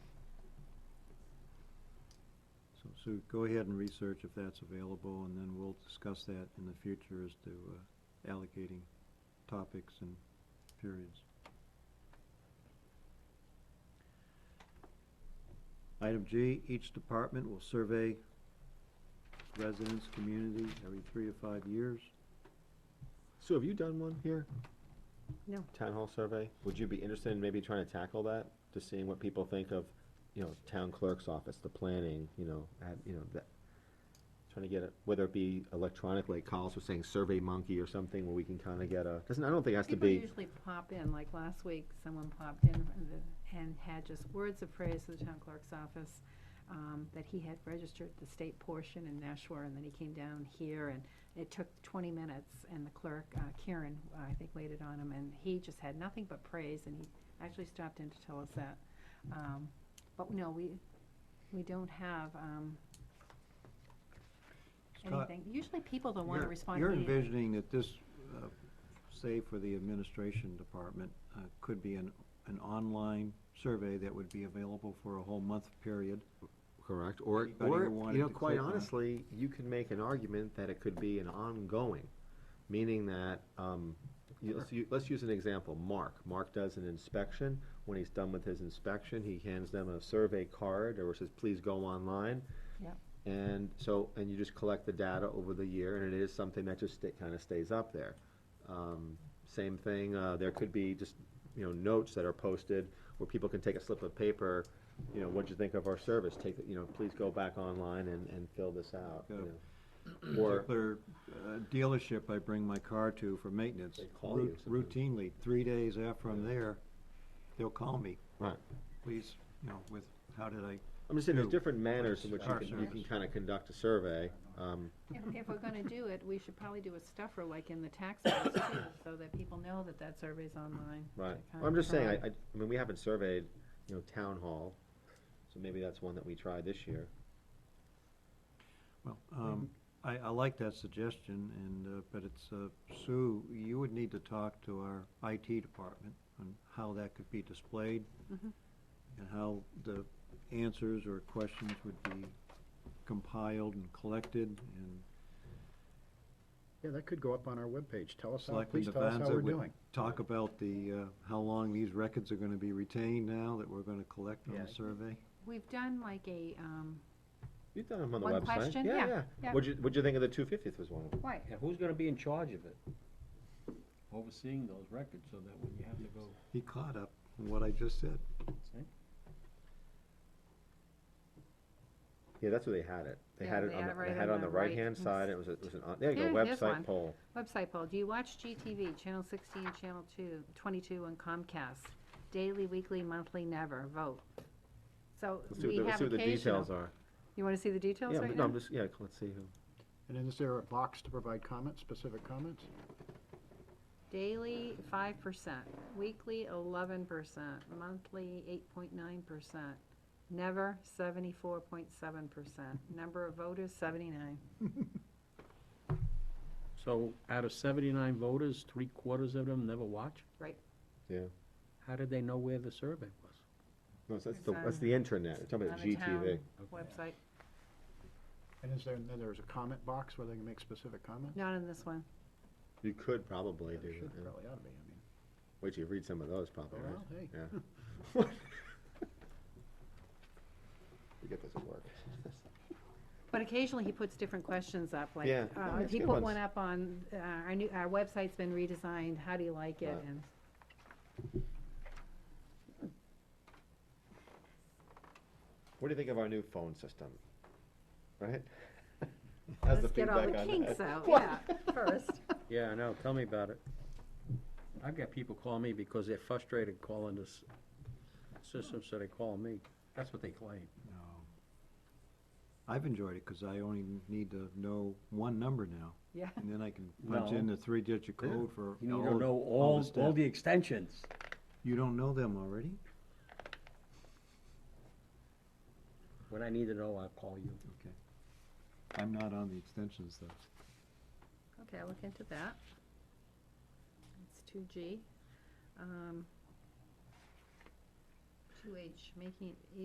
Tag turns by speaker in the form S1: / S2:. S1: So go ahead and research if that's available, and then we'll discuss that in the future as to uh, allocating topics and periods. Item G, each department will survey residents, community, every three or five years.
S2: Sue, have you done one here?
S3: No.
S2: Town hall survey? Would you be interested in maybe trying to tackle that, just seeing what people think of, you know, town clerk's office, the planning, you know, at, you know, that, trying to get it, whether it be electronically, Carlos was saying Survey Monkey or something, where we can kind of get a, doesn't, I don't think it has to
S3: People
S2: be,
S3: usually pop in, like last week, someone popped in and the- and had just words of praise to the town clerk's office, um, that he had registered the state portion in Nashua, and then he came down here, and it took twenty minutes, and the clerk, uh, Karen, I think, waited on him, and he just had nothing but praise, and he actually stopped in to tell us that. Um, But no, we, we don't have, um,
S1: Scott,
S3: anything. Usually people don't wanna
S1: you're-
S3: respond
S1: You're
S3: immediately.
S1: envisioning that this, uh, say for the administration department, uh, could be an, an online survey that would be available for a whole month period.
S2: correct, or,
S1: Anybody who
S2: or,
S1: wanted
S2: you know,
S1: to
S2: quite
S1: click on it.
S2: honestly, you can make an argument that it could be an ongoing, meaning that, um, you, let's, u- let's use an example, Mark, Mark does an inspection, when he's done with his inspection, he hands them a survey card, or says, please go online.
S3: Yep.
S2: And so, and you just collect the data over the year, and it is something that just kind of stays up there. Um, Same thing, uh, there could be just, you know, notes that are posted where people can take a slip of paper, you know, what'd you think of our service? Take, the- you know, please go back online and, and fill this out, you
S1: Yeah.
S2: know. Or,
S1: particular uh, dealership I bring my car to for maintenance.
S2: They call you
S1: rou-
S2: sometimes.
S1: Routinely, three days after I'm there, they'll call me,
S2: right.
S1: please, you know, with, how did I,
S2: I'm just saying, there's
S1: Who?
S2: different manners in which you
S1: Our
S2: can, you can
S1: service.
S2: kind of conduct a survey. Um,
S3: If, if we're gonna do it, we should probably do a stuffer like in the tax office too, so that people know that that survey's online.
S2: Right,
S3: to
S2: Well, I'm just saying, I,
S3: kind
S2: I, I mean, we haven't surveyed, you know, town hall, so maybe that's one that we try this year.
S1: well, um, I, I like that suggestion and, uh, but it's, uh, Sue, you would need to talk to our IT department on how that could be displayed
S3: Mhm.
S1: and how the answers or questions would be compiled and collected and
S4: Yeah, that could go up on our webpage. Tell us how,
S1: Selectman
S4: please tell us how
S1: Devanza
S4: we're
S1: would
S4: doing.
S1: Talk about the, uh, how long these records are gonna be retained now that we're gonna collect on
S4: Yeah.
S1: the survey.
S3: We've done like a, um,
S2: You've done them on the website.
S3: One question? Yeah, yeah.
S2: What'd you, what'd you think of the two fiftieth was one of them?
S3: right,
S5: Yeah, who's gonna be in charge of it? Overseeing those records so that when you have to go.
S1: He caught up on what I just said.
S2: Yeah, that's where they had it. They
S3: Yeah,
S2: had it
S3: they
S2: on,
S3: had
S2: the-
S3: it right
S2: they had it
S3: on
S2: on
S3: the
S2: the
S3: right.
S2: right-hand
S3: Yes.
S2: side. It was, a- it was an, on- there you go,
S3: Here, here's one.
S2: website poll.
S3: website poll, do you watch GTV, channel sixteen, channel two, twenty-two, and Comcast? Daily, weekly, monthly, never, vote. So
S2: Let's see
S3: we
S2: what the, let's
S3: have
S2: see what the details
S3: occasional.
S2: are.
S3: You wanna see the details
S2: Yeah,
S3: right
S2: no,
S3: now?
S2: I'm just, yeah, let's see who.
S4: And is there a box to provide comments, specific comments?
S3: Daily, five percent, weekly, eleven percent, monthly, eight point nine percent, never, seventy-four point seven percent, number of voters, seventy-nine.
S5: So out of seventy-nine voters, three quarters of them never watch?
S3: Right.
S2: Yeah.
S5: How did they know where the survey was?
S2: No, that's
S3: It's
S2: the, that's
S3: on-
S2: the internet. We're talking about
S3: on the town
S2: GTV.
S3: Website,
S4: And is there, then there's a comment box where they can make specific comments?
S3: not in this one.
S2: You could probably do
S4: There
S2: it.
S4: should,
S2: yeah.
S4: probably ought to be, I mean.
S2: Wait till you read some of those probably, right?
S4: Well, hey.
S2: Yeah. You get this at work.
S3: But occasionally he puts different questions up, like,
S2: Yeah,
S3: uh,
S2: nice,
S3: he
S2: good
S3: put
S2: ones.
S3: one up on, uh, our new, our website's been redesigned, how do you like it?
S2: Right.
S3: And
S2: What do you think of our new phone system? Right? How's the
S3: let's get all
S2: feedback
S3: the
S2: on
S3: kinks
S2: that?
S3: out, yeah, first.
S5: Yeah, I know, tell me about it. I've got people calling me because they're frustrated calling this system, so they call me. That's what they claim.
S1: No. I've enjoyed it, cause I only need to know one number now,
S3: Yeah,
S1: and then I can punch
S5: No.
S1: in the three-digit
S2: Yeah.
S1: code for
S5: You
S1: all,
S5: need to know
S1: all the
S5: all, all
S1: steps.
S5: the extensions.
S1: You don't know them already?
S5: When I need to know, I'll call you.
S1: Okay. I'm not on the extensions though.
S3: okay, I'll look into that. It's two G. Um, two H, making it